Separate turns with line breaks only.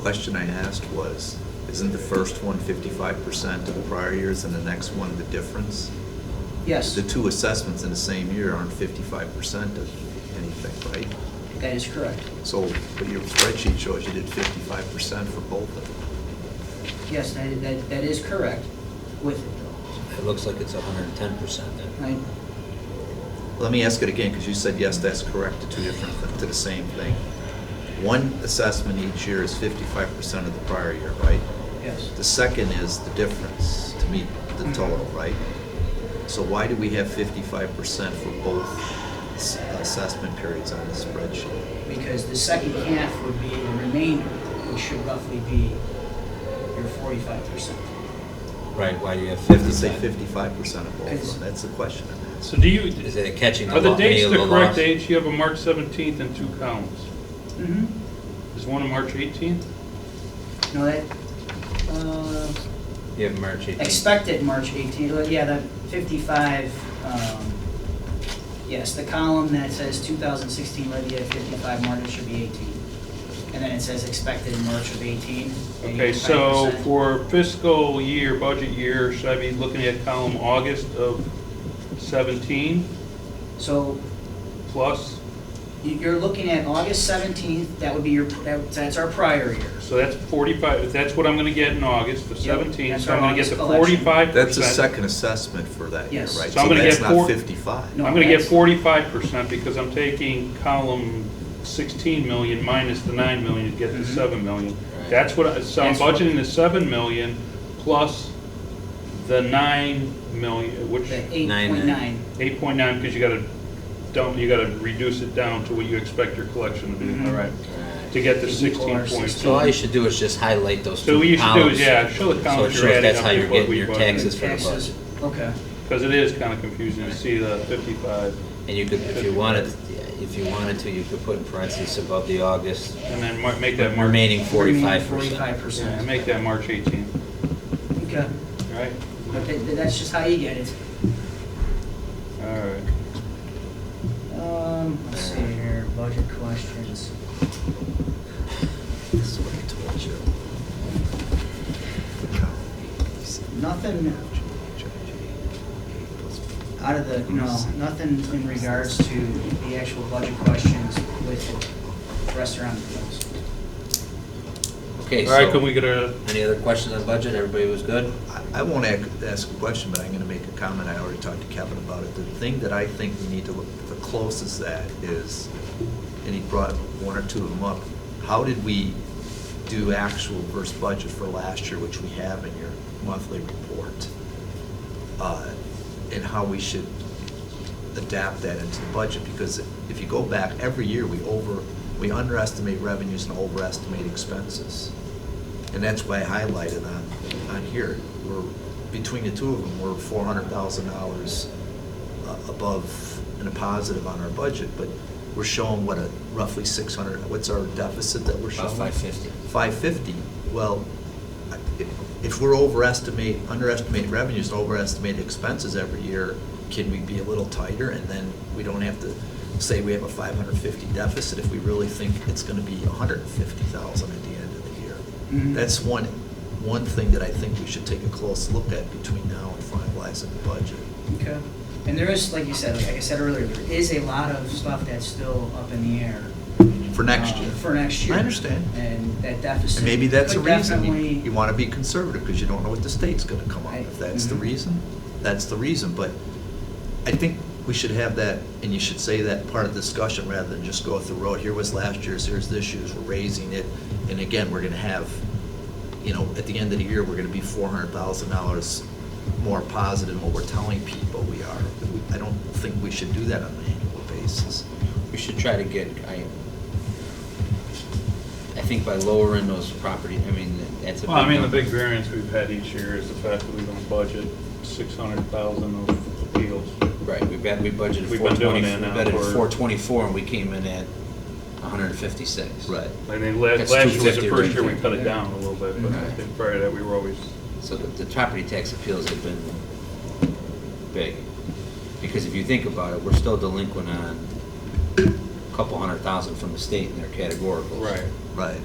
question I asked was, isn't the first one 55% of the prior years and the next one the difference?
Yes,
The two assessments in the same year aren't 55% of anything, right?
that is correct.
So, but your spreadsheet shows you did 55% for both of them.
Yes, that, that, that is correct with,
It looks like it's hundred and ten percent then.
I,
Let me ask it again, because you said, yes, that's correct, to two different, to the same thing. One assessment each year is 55% of the prior year, right?
yes.
The second is the difference to meet the total, right? So why do we have 55% for both s- assessment periods on the spreadsheet?
Because the second half would be the remainder, which should roughly be your forty-five percent.
Right, why do you have
If you
fifty
say 55%
percent?
of both of them, that's the question I'm
So
asking.
do you,
Is it catching the
are the
lo- many
dates
of
the
the
correct
lost?
dates? You have a March 17th and two columns.
Mm-hmm.
Is one a March 18th?
No, that, uh,
You have March eighteenth.
expected March eighteenth, yeah, the fifty-five, um, yes, the column that says two thousand sixteen levy at fifty-five, March it should be eighteen. And then it says expected in March of eighteen. and
Okay, so
85%.
for fiscal year, budget year, should I be looking at column August of 17
So
plus?
You- You're looking at August 17th, that would be your, that- that's our prior year.
So that's 45, if that's what I'm going to get in August, the
Yep,
17th,
that's
so I'm
our
going to get
August
the
collection.
45%.
That's the second assessment for that year, right?
Yes.
So I'm gonna
that's
get
not
four-
55.
No.
I'm going to get
that's-
45% because I'm taking column 16 million minus the 9 million to get the
Mhm.
7 million.
Right.
That's what, I- so I'm
That's what-
budgeting the 7 million plus the 9 million, which,
The
9.9.
8.9,
8.9, because you got to dump, you got to reduce it down to what you expect your collection to be,
Mhm.
all right? To get the
Is equal or
16.2.
So all you should do is just highlight those
So
two
what you should do
columns.
is, yeah, show the
So it
columns you're
shows
adding
that's
up
how you're
with what
getting
we
your
budgeted.
taxes for the
taxes,
budget.
okay.
Because it is kind of confusing to see the 55
And you could, if you wanted, if you wanted to, you could put in parentheses above the August
and then mar- make that March,
remaining forty-five percent.
Forty-five
yeah,
percent.
make that March 18,
Okay,
all right?
but that- that- that's just how you get it.
All right.
Um, let's see here, budget questions.
This is what I told you.
Nothing out of the, no, nothing in regards to the actual budget questions with the restaurant bills.
Okay,
All right, can
so,
we get a,
any other questions on budget? Everybody was good?
I- I won't ac- ask a question, but I'm going to make a comment. I already talked to Kevin about it. The thing that I think we need to look the closest at is, and he brought one or two of them up, how did we do actual versus budget for last year, which we have in your monthly report? uh, And how we should adapt that into the budget, because if you go back, every year, we over, we underestimate revenues and overestimate expenses. And that's why I highlighted on, on here, we're, between the two of them, we're four hundred thousand dollars uh, above and a positive on our budget, but we're showing what a roughly six hundred, what's our deficit that we're showing?
About five fifty.
Five fifty, well, I- if, if we're overestimate, underestimate revenues, and overestimate expenses every year, can we be a little tighter? And then we don't have to say we have a five hundred fifty deficit if we really think it's gonna be hundred and fifty thousand at the end of the year.
Mhm.
That's one, one thing that I think we should take a close look at between now and finalizing the budget.
Okay. And there is, like you said, like I said earlier, there is a lot of stuff that's still up in the air.
For next
uh,
year.
For next year.
I understand.
And that
And
deficit.
maybe that's a
could
reason, you,
definitely-
you wanna be conservative, because you don't know what the state's gonna come up,
Right.
if that's the
Mhm.
reason, that's the reason, but I think we should have that, and you should say that part of the discussion, rather than just go through the road, here was last year's, here's this year's, we're raising it, and again, we're gonna have, you know, at the end of the year, we're gonna be four hundred thousand dollars more positive than what we're telling people we are. I don't think we should do that on an annual basis.
We should try to get, I, I think by lowering those property, I mean, that's a big
well, I mean, the
number.
big variance we've had each year is the fact that we don't budget 600,000 of appeals.
Right, we've got, we budgeted
We've
four
been
twenty,
doing
we
that now
budgeted
for-
four twenty-four and we came in at hundred and fifty-six.
I mean, last,
That's
last year was
250
the first year we
right
cut it
there.
down a little bit, but I
Mhm.
think prior to that, we were always,
So the, the property tax appeals have been big, because if you think about it, we're still delinquent on a couple hundred thousand from the state in their categoricals.
right.
Right.